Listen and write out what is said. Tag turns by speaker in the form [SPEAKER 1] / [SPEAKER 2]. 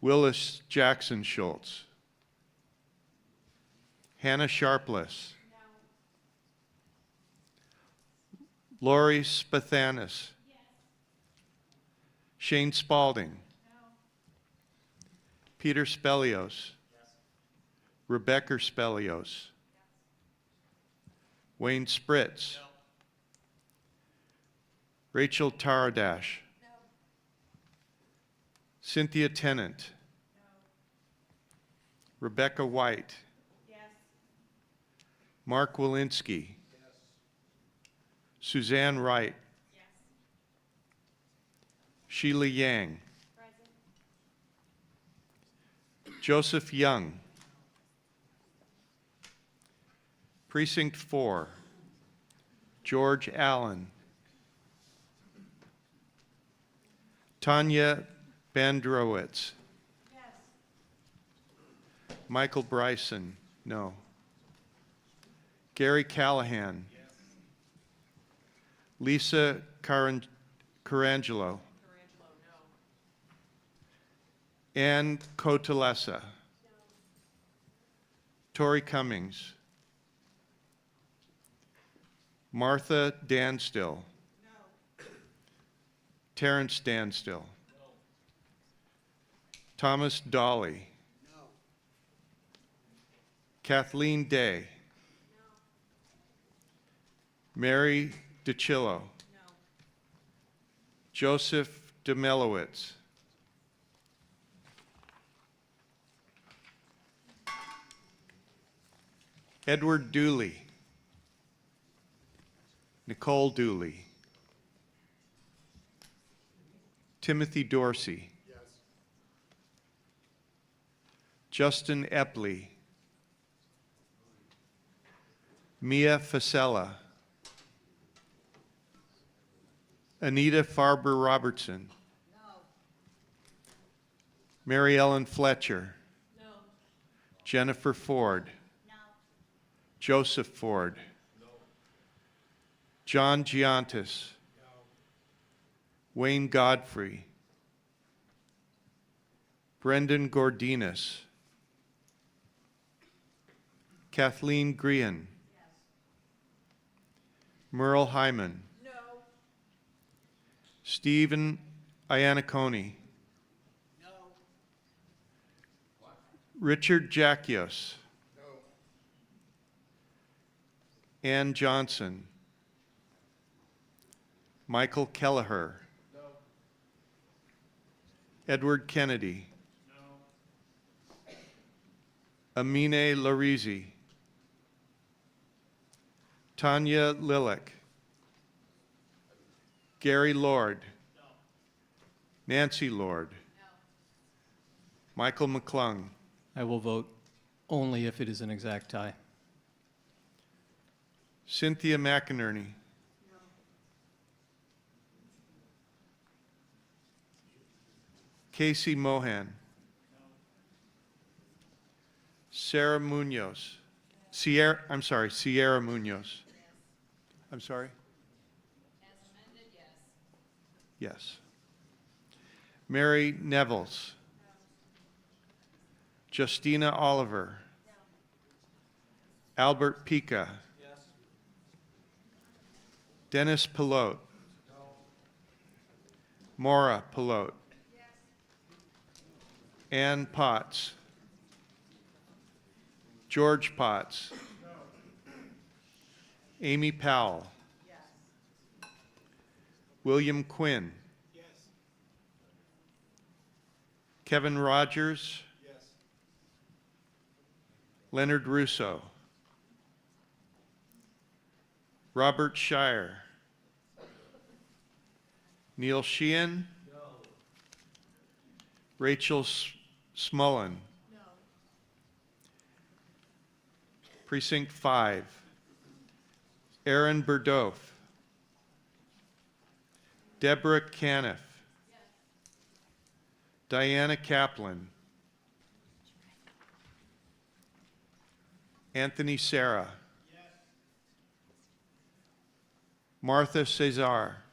[SPEAKER 1] Willis Jackson Schultz. Hannah Sharpless. Lori Spathanis. Shane Spalding. Peter Spelios. Rebecca Spelios. Wayne Spritz. Rachel Taradash. Cynthia Tennant. Rebecca White. Mark Walensky. Suzanne Wright. Sheila Yang. Joseph Young. Precinct 4. George Allen. Tanya Bandrowitz. Michael Bryson, no. Gary Callahan. Lisa Caran- Carangelo. Ann Cotalesa. Tori Cummings. Martha Danstill. Terrence Danstill. Thomas Dolly. Kathleen Day. Mary DiCillo. Joseph Demelowitz. Edward Dooley. Nicole Dooley. Timothy Dorsey. Justin Epley. Mia Fasella. Anita Farber Robertson. Mary Ellen Fletcher. Jennifer Ford. Joseph Ford. John Giantis. Wayne Godfrey. Brendan Gordinas. Kathleen Green. Merle Hyman. Stephen Iannacone. Richard Jackios. Ann Johnson. Michael Kelleher. Edward Kennedy. Amine Larizi. Tanya Lilick. Gary Lord. Nancy Lord. Michael McClung.
[SPEAKER 2] I will vote only if it is an exact tie.
[SPEAKER 1] Cynthia McInerney. Casey Mohan. Sarah Munoz. Sierra, I'm sorry, Sierra Munoz. I'm sorry? As amended, yes. Yes. Mary Nevels. Justina Oliver. Albert Pica. Dennis Pilote. Mora Pilote. Ann Potts. George Potts. Amy Powell. William Quinn. Kevin Rogers. Leonard Russo. Robert Shire. Neil Sheehan. Rachel S- Smullen. Precinct 5. Aaron Burdoff. Deborah Caniff. Diana Kaplan. Anthony Sarah. Martha Cesar.